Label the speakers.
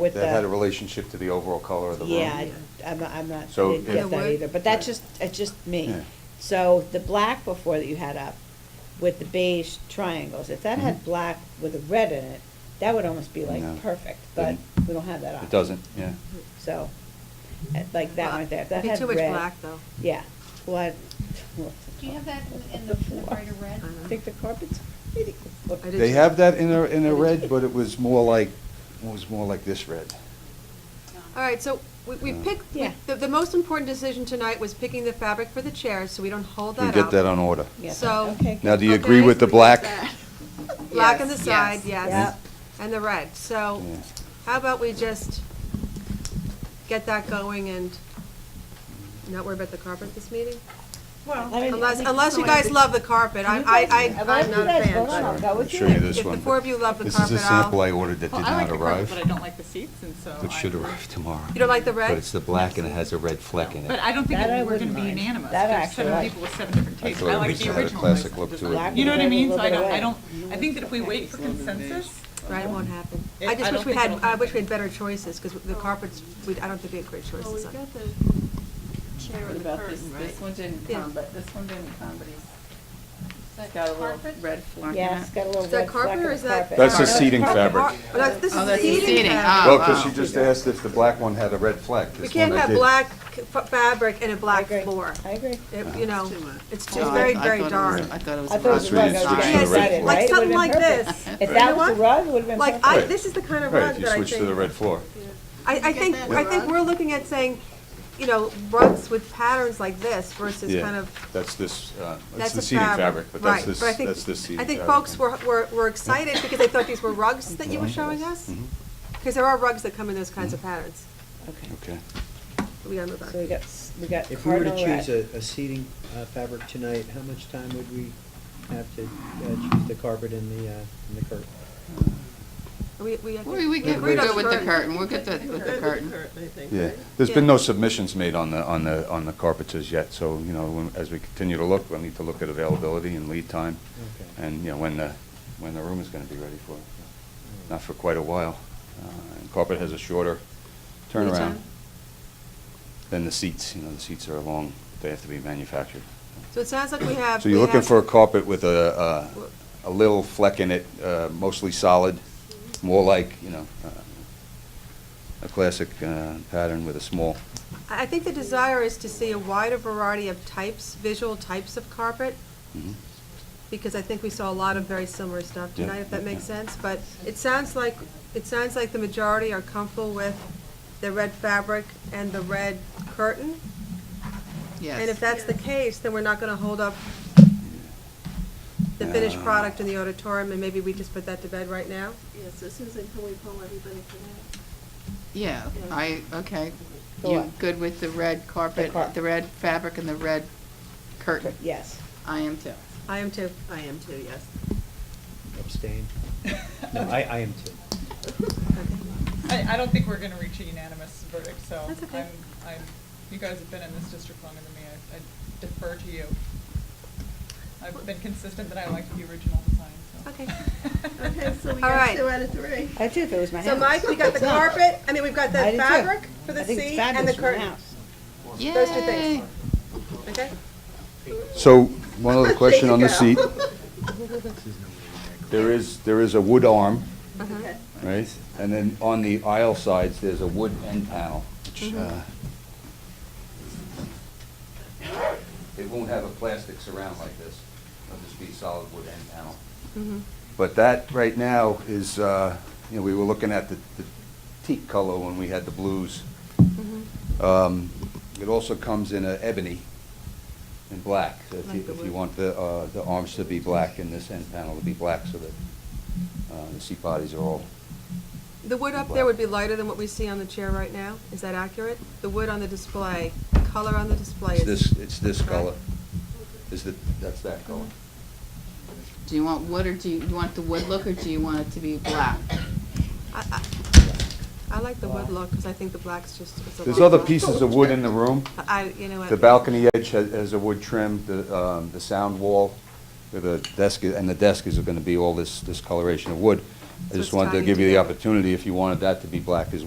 Speaker 1: with
Speaker 2: That had a
Speaker 1: the,
Speaker 2: relationship to the overall color of the room?
Speaker 1: yeah, I- I'm, not- I'm not,
Speaker 2: So
Speaker 1: didn't
Speaker 2: it-
Speaker 1: get
Speaker 3: It
Speaker 1: that
Speaker 3: would?
Speaker 1: either, but that's just, it's just me.
Speaker 2: Yeah.
Speaker 1: So the black before that you had up with the beige triangles, if that had
Speaker 2: Mhm.
Speaker 1: black with a red in it, that would almost be like
Speaker 2: No.
Speaker 1: perfect, but
Speaker 2: Didn't.
Speaker 1: we don't have that option.
Speaker 2: It doesn't, yeah.
Speaker 1: So, uh, like that one right there, if that
Speaker 3: Be
Speaker 1: had
Speaker 3: too
Speaker 1: red.
Speaker 3: much black, though.
Speaker 1: Yeah, what?
Speaker 4: Do you have that in in the in the brighter red?
Speaker 3: Uh-huh.
Speaker 1: I think the carpet's pretty good.
Speaker 3: I did
Speaker 2: They
Speaker 3: too.
Speaker 2: have that in a, in
Speaker 3: I
Speaker 2: a
Speaker 3: did
Speaker 2: red,
Speaker 3: too.
Speaker 2: but it was more like, it was more like this red.
Speaker 3: All right, so we, we
Speaker 2: Yeah.
Speaker 3: picked, we-
Speaker 1: Yeah.
Speaker 3: the, the most important decision tonight was picking the fabric for the chairs, so we don't hold that
Speaker 2: We
Speaker 3: up.
Speaker 2: get that on order.
Speaker 1: Yeah,
Speaker 3: So-
Speaker 1: okay,
Speaker 2: Now,
Speaker 1: good.
Speaker 2: do you
Speaker 3: Okay.
Speaker 2: agree with the black?
Speaker 3: Black on the
Speaker 5: Yes,
Speaker 3: side,
Speaker 5: yes.
Speaker 3: yes,
Speaker 1: Yep.
Speaker 3: and the red. So
Speaker 2: Yeah.
Speaker 3: how about we just get that going and not worry about the carpet this meeting?
Speaker 1: Well, I mean, I
Speaker 3: Oh, Unless,
Speaker 1: think
Speaker 3: unless you
Speaker 1: someone-
Speaker 3: guys love the carpet, I,
Speaker 1: You
Speaker 3: I,
Speaker 1: guys-
Speaker 3: I,
Speaker 1: unless
Speaker 3: I'm
Speaker 1: you
Speaker 3: not a
Speaker 1: guys
Speaker 3: fan.
Speaker 1: vote on it. I'll go
Speaker 2: I'll
Speaker 1: with
Speaker 2: show
Speaker 1: you.
Speaker 2: you this
Speaker 3: If the
Speaker 2: one.
Speaker 3: four of you love the
Speaker 2: This
Speaker 3: carpet,
Speaker 2: is a
Speaker 3: I'll- Oh,
Speaker 2: sample I ordered that did
Speaker 5: Well, I like
Speaker 2: not
Speaker 5: the carpet,
Speaker 2: arrive.
Speaker 5: but I don't like the seats, and so.
Speaker 2: It
Speaker 5: I-
Speaker 2: should arrive tomorrow.
Speaker 3: You don't like the red?
Speaker 2: But it's the black and it has a red fleck in
Speaker 5: But
Speaker 2: it.
Speaker 5: I don't think
Speaker 1: That I
Speaker 5: it- we're
Speaker 1: wouldn't
Speaker 5: gonna be
Speaker 1: mind.
Speaker 5: unanimous,
Speaker 1: That I
Speaker 5: there's
Speaker 1: actually
Speaker 5: seven
Speaker 1: like.
Speaker 5: people with seven different tastes.
Speaker 2: thought
Speaker 5: I
Speaker 2: it
Speaker 5: like
Speaker 2: was-
Speaker 5: the
Speaker 2: had a
Speaker 5: original
Speaker 2: classic
Speaker 5: design.
Speaker 2: look to
Speaker 1: it.
Speaker 5: You know what I mean? So I don't, I
Speaker 1: Black
Speaker 5: don't,
Speaker 1: and
Speaker 5: I think that if we wait for consensus,
Speaker 3: Right, it won't happen.
Speaker 5: It-
Speaker 3: I
Speaker 5: I
Speaker 3: just wish
Speaker 5: don't
Speaker 3: we
Speaker 5: think
Speaker 3: had,
Speaker 5: it'll
Speaker 3: I wish we
Speaker 5: happen.
Speaker 3: had better choices, because the carpets, we, I don't think we had great
Speaker 6: Well,
Speaker 3: choices
Speaker 6: we've
Speaker 3: on it.
Speaker 6: got the chair
Speaker 5: what
Speaker 6: and the
Speaker 5: about this,
Speaker 6: curtain, right?
Speaker 5: this one didn't
Speaker 3: Yeah.
Speaker 5: come, but this one didn't come, but he's
Speaker 4: That
Speaker 5: got a little
Speaker 4: carpet?
Speaker 5: red flag in
Speaker 1: Yeah,
Speaker 5: it.
Speaker 1: it's got a little
Speaker 3: Is that
Speaker 1: red fleck
Speaker 3: carpet
Speaker 1: in
Speaker 3: or
Speaker 1: the
Speaker 3: is that?
Speaker 1: carpet.
Speaker 2: That's a
Speaker 3: carpet?
Speaker 2: seating fabric.
Speaker 3: Car- oh, that's- this
Speaker 5: Oh,
Speaker 3: is
Speaker 5: that's the
Speaker 3: seating
Speaker 5: seating.
Speaker 3: fabric.
Speaker 5: Oh,
Speaker 2: Well, because
Speaker 5: wow.
Speaker 2: she just asked if the black one had a red fleck.
Speaker 3: We
Speaker 2: This
Speaker 3: uh, can't
Speaker 2: one I
Speaker 3: have
Speaker 2: did.
Speaker 3: black f- fabric and a
Speaker 1: I
Speaker 3: black
Speaker 1: agree.
Speaker 3: floor.
Speaker 1: I agree.
Speaker 3: It- You know,
Speaker 5: too much.
Speaker 3: it's
Speaker 5: Oh,
Speaker 3: just
Speaker 5: I-
Speaker 3: very,
Speaker 5: I
Speaker 3: very
Speaker 5: thought it was-
Speaker 3: dark.
Speaker 5: I thought it was.
Speaker 1: I thought it was
Speaker 2: That's
Speaker 1: rug,
Speaker 2: what
Speaker 1: I
Speaker 2: it
Speaker 1: was
Speaker 2: is,
Speaker 1: getting
Speaker 2: switch to the red
Speaker 1: excited,
Speaker 2: floor.
Speaker 1: right?
Speaker 3: Like
Speaker 1: It would've
Speaker 3: something like
Speaker 1: been perfect.
Speaker 3: this.
Speaker 1: If that
Speaker 3: You know
Speaker 1: was
Speaker 3: what?
Speaker 1: the rug, it would've been
Speaker 3: Like,
Speaker 1: perfect.
Speaker 3: I,
Speaker 2: Right.
Speaker 3: this is the kind of
Speaker 2: Right,
Speaker 3: rug
Speaker 2: if you
Speaker 3: that I
Speaker 2: switch to the
Speaker 3: think,
Speaker 2: red floor.
Speaker 3: I, I think, I think we're looking at saying, you know, rugs with patterns like this versus
Speaker 2: Yeah.
Speaker 3: kind of,
Speaker 2: That's this, uh, that's
Speaker 3: that's
Speaker 2: the
Speaker 3: a
Speaker 2: seating fabric,
Speaker 3: fabric.
Speaker 2: but that's
Speaker 3: Right,
Speaker 2: this,
Speaker 3: I think-
Speaker 2: that's this seating
Speaker 3: I
Speaker 2: fabric.
Speaker 3: think folks were, were, were excited because they thought these were rugs that you were showing us.
Speaker 2: Mhm.
Speaker 3: Because there are rugs that come in those kinds of patterns.
Speaker 1: Okay,
Speaker 2: Okay.
Speaker 3: We gotta move on.
Speaker 1: so we got, s- we got
Speaker 7: If we were to
Speaker 1: cardinal
Speaker 7: choose a,
Speaker 1: red.
Speaker 7: a seating uh, fabric tonight, how much time would we have to uh, choose the carpet and the, uh, and the curtain?
Speaker 3: We, we. I think-
Speaker 5: We, we get, we're
Speaker 3: agreed on
Speaker 5: good with the curtain, we're good with with the curtain.
Speaker 2: Yeah, there's
Speaker 3: Yeah.
Speaker 2: been no submissions made on the, on the, on the carpenters yet, so, you know, when- as we continue to look, we'll need to look at availability and lead time,
Speaker 7: Okay.
Speaker 2: and, you know, when the, when the room is gonna be ready for it. Not for quite a while. Uh, and Carpet has a shorter
Speaker 3: Lead
Speaker 2: turnaround
Speaker 3: time?
Speaker 2: than the seats, you know, the seats are a long, they have to be manufactured.
Speaker 3: So it sounds like we have.
Speaker 2: So you're
Speaker 3: we
Speaker 2: looking
Speaker 3: have-
Speaker 2: for a carpet with a, a, a little fleck in it, uh, mostly solid, more like, you know, uh, a classic, uh, pattern with a small,
Speaker 3: I I think the desire is to see a wider variety of types, visual types of carpet,
Speaker 2: mhm.
Speaker 3: because I think we saw a lot of very similar stuff
Speaker 2: Yeah,
Speaker 3: tonight, if that makes
Speaker 2: yeah.
Speaker 3: sense. But it sounds like, it sounds like the majority are comfortable with the red fabric and the red curtain. And if
Speaker 5: Yes.
Speaker 3: that's the case, then we're not gonna hold up the finished
Speaker 2: Yeah.
Speaker 3: product in the auditorium, and maybe we just put that to bed right now?
Speaker 6: Yeah, so Susan, can we poll everybody for that?
Speaker 5: Yeah, I, okay.
Speaker 1: The
Speaker 5: You
Speaker 1: what?
Speaker 5: good with the red carpet,
Speaker 1: car-
Speaker 5: the red fabric and the red curtain?
Speaker 1: Yes,
Speaker 5: I am too.
Speaker 3: I am too.
Speaker 6: I am too, yes.
Speaker 7: Abstain? No, I, I am too.
Speaker 5: I, I don't think we're gonna reach a unanimous verdict, so.
Speaker 3: That's okay.
Speaker 5: I'm, I'm, you guys have been in this district longer than me, I I defer to you. I've been consistent that I like the original design, so.
Speaker 3: Okay.
Speaker 6: Okay, so we
Speaker 3: All
Speaker 6: got
Speaker 3: right.
Speaker 6: two out of three.
Speaker 1: I do if it was my house.
Speaker 3: So Mike, we got the carpet, I mean, we've got the
Speaker 1: I do too.
Speaker 3: fabric for the
Speaker 1: I think it's
Speaker 3: seat and the
Speaker 1: fabulous for my
Speaker 3: curtain.
Speaker 1: house.
Speaker 3: Those two things. Okay?
Speaker 2: So, one other question
Speaker 6: you
Speaker 2: on the
Speaker 6: go.
Speaker 2: seat. There is, there is a wood arm,
Speaker 3: Uh-huh.
Speaker 6: Okay.
Speaker 2: right? And then on the aisle sides, there's a wood end panel, which, uh, it won't have a plastic surround like this. It'll just be solid wood end panel.
Speaker 3: Mm-hmm.
Speaker 2: But that, right now, is, uh, you know, we were looking at the the teak color when we had the blues.
Speaker 1: Mm-hmm.
Speaker 2: Um, It also comes in a ebony and black, so if you,
Speaker 3: Like the
Speaker 2: if you
Speaker 3: wood.
Speaker 2: want the, uh, the arms to be black and this end panel to be black so that, uh, the seat bodies are all,
Speaker 3: The wood up there would be lighter than what we see on the chair right now, is that accurate? The wood on the display, the color on the display
Speaker 2: it's
Speaker 3: is.
Speaker 2: this, it's this
Speaker 3: Right.
Speaker 2: color. Is the, that's that color.
Speaker 5: Do you want wood or do you, you want the wood look or do you want it to be black?
Speaker 3: I, I, I like the wood look, because I think the black's just, it's a lot.
Speaker 2: There's other
Speaker 3: more-
Speaker 2: pieces of wood in the room.
Speaker 3: I, you know what?
Speaker 2: The balcony edge has, has a wood trim, the, um, the sound wall, with a desk, i- and the desk is gonna be all this, this coloration of wood. I
Speaker 3: So
Speaker 2: just
Speaker 3: it's
Speaker 2: wanted to
Speaker 3: tying
Speaker 2: give you the
Speaker 3: together.
Speaker 2: opportunity, if you wanted that to be black as well.